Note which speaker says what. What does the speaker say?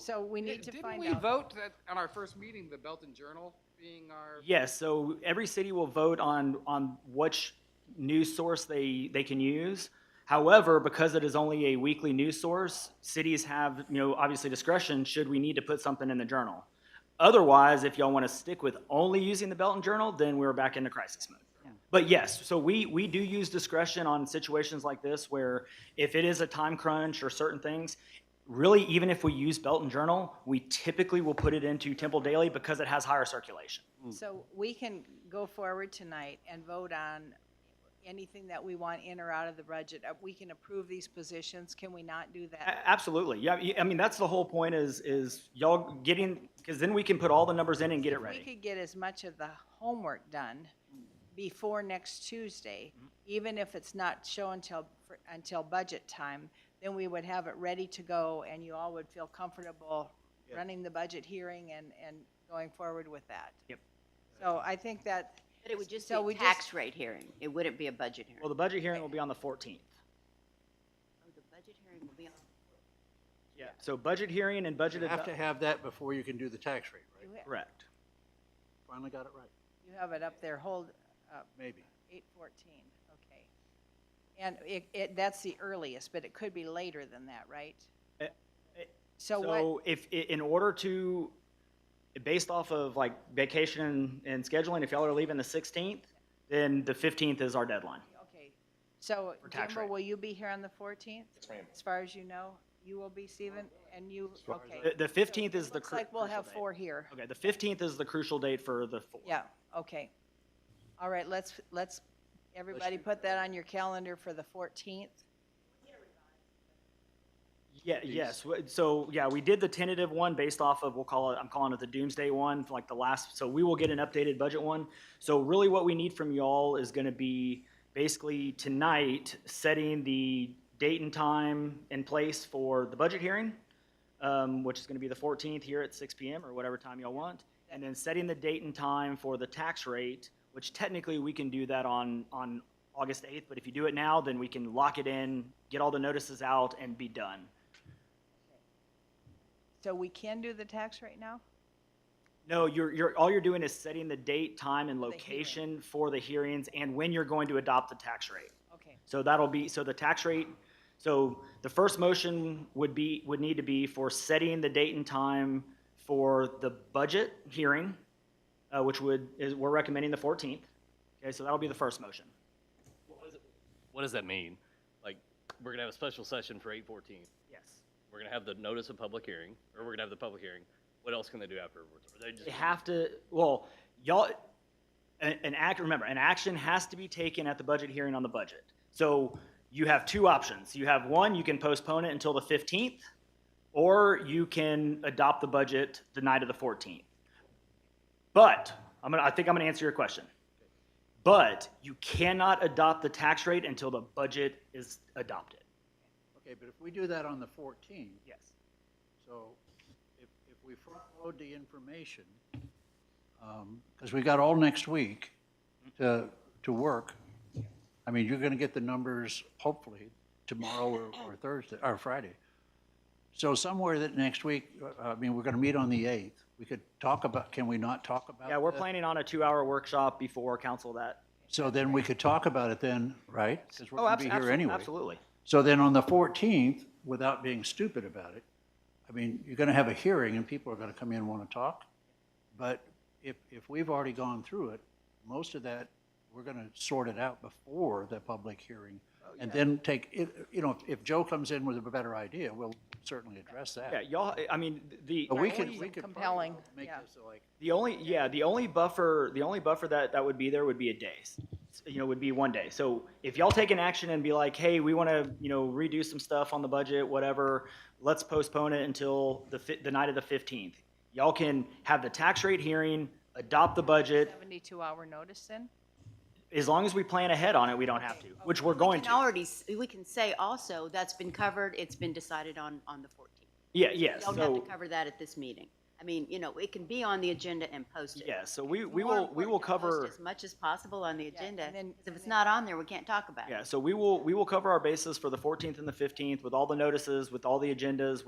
Speaker 1: So we need to
Speaker 2: Didn't
Speaker 1: find
Speaker 2: we
Speaker 1: out.
Speaker 2: vote that, on our first meeting, the Belton Journal being our?
Speaker 3: Yes, so every city will vote on, on which news source they, they can use. However, because it is only a weekly news source, cities have, you know, obviously discretion, should we need to put something in the journal. Otherwise, if y'all want to stick with only using the Belton Journal, then we're back into crisis mode. But yes, so we, we do use discretion on situations like this where if it is a time crunch or certain things, really, even if we use Belton Journal, we typically will put it into Temple Daily because it has higher circulation.
Speaker 1: So we can go forward tonight and vote on anything that we want in or out of the budget. Uh, We can approve these positions, can we not do that?
Speaker 3: A- Absolutely, yeah, y- I mean, that's the whole point is, is y'all getting, because then we can put all the numbers in and get it
Speaker 1: We
Speaker 3: ready.
Speaker 1: could get as much of the homework done before next Tuesday,
Speaker 3: Hmm.
Speaker 1: even if it's not show until, for- until budget time, then we would have it ready to go and you all would feel comfortable running the budget hearing and, and going forward with that.
Speaker 3: Yep.
Speaker 1: So I think that,
Speaker 4: But it would just be
Speaker 1: So
Speaker 4: a
Speaker 1: we just-
Speaker 4: tax rate hearing. It wouldn't be a budget hearing.
Speaker 3: Well, the budget hearing will be on the fourteenth.
Speaker 4: Oh, the budget hearing will be on.
Speaker 3: Yeah. So budget hearing and budget,
Speaker 5: You have to
Speaker 3: adu-
Speaker 5: have that before you can do the tax rate,
Speaker 1: you
Speaker 5: right?
Speaker 1: ha-
Speaker 3: correct.
Speaker 5: Finally got it right,
Speaker 1: you have it up there, hold, up.
Speaker 5: maybe.
Speaker 1: Eight fourteen, okay. And it, it, that's the earliest, but it could be later than that, right?
Speaker 3: Eh, eh,
Speaker 1: So what,
Speaker 3: So if, i- in order to, based off of like vacation and- and scheduling, if y'all are leaving the sixteenth, then the fifteenth is our deadline.
Speaker 1: okay, so
Speaker 3: For tax
Speaker 1: Jimbo,
Speaker 3: rate.
Speaker 1: will you be here on the fourteenth? As far as you know, you will be, Stephen, and you,
Speaker 3: The,
Speaker 1: okay.
Speaker 3: the fifteenth is the
Speaker 1: Looks
Speaker 3: cru-
Speaker 1: like we'll
Speaker 3: crucial
Speaker 1: have
Speaker 3: date.
Speaker 1: four here.
Speaker 3: Okay, the fifteenth is the crucial date for the four.
Speaker 1: Yeah, okay. All right, let's, let's, everybody put that on your calendar for the fourteenth.
Speaker 3: Yeah, yes, W- so, yeah, we did the tentative one based off of, we'll call it, I'm calling it the doomsday one, for like the last, so we will get an updated budget one. So really what we need from y'all is gonna be basically tonight, setting the date and time and place for the budget hearing, um, which is gonna be the fourteenth here at six PM or whatever time y'all want. And then setting the date and time for the tax rate, which technically we can do that on, on August eighth, but if you do it now, then we can lock it in, get all the notices out and be done.
Speaker 1: So we can do the tax right now?
Speaker 3: No, you're, you're, all you're doing is setting the date, time, and
Speaker 1: For the
Speaker 3: location for the hearings and when you're going to adopt the tax rate.
Speaker 1: Okay,
Speaker 3: So that'll be, so the tax rate, so the first motion would be, would need to be for setting the date and time for the budget hearing, uh, which would, is, we're recommending the fourteenth. Okay, so that'll be the first motion.
Speaker 6: What does that mean? Like, we're gonna have a special session for eight fourteen.
Speaker 3: Yes.
Speaker 6: We're gonna have the notice of public hearing, or we're gonna have the public hearing. What else can they do afterwards? Or they just
Speaker 3: They have to, well, y'all, an, an act, remember, an action has to be taken at the budget hearing on the budget. So you have two options. You have one, you can postpone it until the fifteenth, or you can adopt the budget the night of the fourteenth. But, I'm gonna, I think I'm gonna answer your question. But you cannot adopt the tax rate until the budget is adopted.
Speaker 5: Okay, but if we do that on the fourteenth,
Speaker 3: Yes.
Speaker 5: so if, if we front load the information, because we got all next week to, to work, I mean, you're gonna get the numbers hopefully tomorrow or, or Thursday, or Friday. So somewhere that next week, uh, I mean, we're gonna meet on the eighth, we could talk about, can we not talk about?
Speaker 3: Yeah, we're
Speaker 5: the-
Speaker 3: planning on a two-hour workshop before council that.
Speaker 5: So then we could talk about it then, right? Because
Speaker 3: Oh,
Speaker 5: we're gonna be here anyway.
Speaker 3: Absolutely.
Speaker 5: So then on the 14th, without being stupid about it, I mean, you're going to have a hearing and people are going to come in and want to talk. But if, if we've already gone through it, most of that, we're going to sort it out before the public hearing. And then take, it- you know, if Joe comes in with a better idea, we'll certainly address
Speaker 3: Yeah,
Speaker 5: that.
Speaker 3: y'all, I mean, the.
Speaker 5: But we could, we
Speaker 1: Only
Speaker 5: could. probably
Speaker 1: compelling,
Speaker 5: Make
Speaker 1: yeah.
Speaker 5: this like,
Speaker 3: The only, yeah, the only buffer, the only buffer that, that would be there would be a day. You know, would be one day. So if y'all take an action and be like, hey, we want to, you know, redo some stuff on the budget, whatever, let's postpone it until the fi- the night of the fifteenth. Y'all can have the tax rate hearing, adopt the budget,
Speaker 1: seventy-two hour notice then?
Speaker 3: as long as we plan ahead on it, we don't have to, which we're
Speaker 4: We
Speaker 3: going
Speaker 4: can
Speaker 3: to.
Speaker 4: already, s- we can say also, that's been covered, it's been decided on, on the 14th.
Speaker 3: Yeah, yeah,
Speaker 4: You don't have to
Speaker 3: so,
Speaker 4: cover that at this meeting. I mean, you know, it can be on the agenda and posted.
Speaker 3: yeah, so we, we
Speaker 4: More
Speaker 3: will, we
Speaker 4: important
Speaker 3: will
Speaker 4: to post
Speaker 3: cover.
Speaker 4: As much as possible on the agenda,
Speaker 1: and then-
Speaker 4: 'cause
Speaker 1: and
Speaker 4: if it's
Speaker 1: then-
Speaker 4: not on there, we can't talk about it.
Speaker 3: Yeah, so we will, we will cover our bases for the fourteenth and the fifteenth with all the notices, with all the agendas,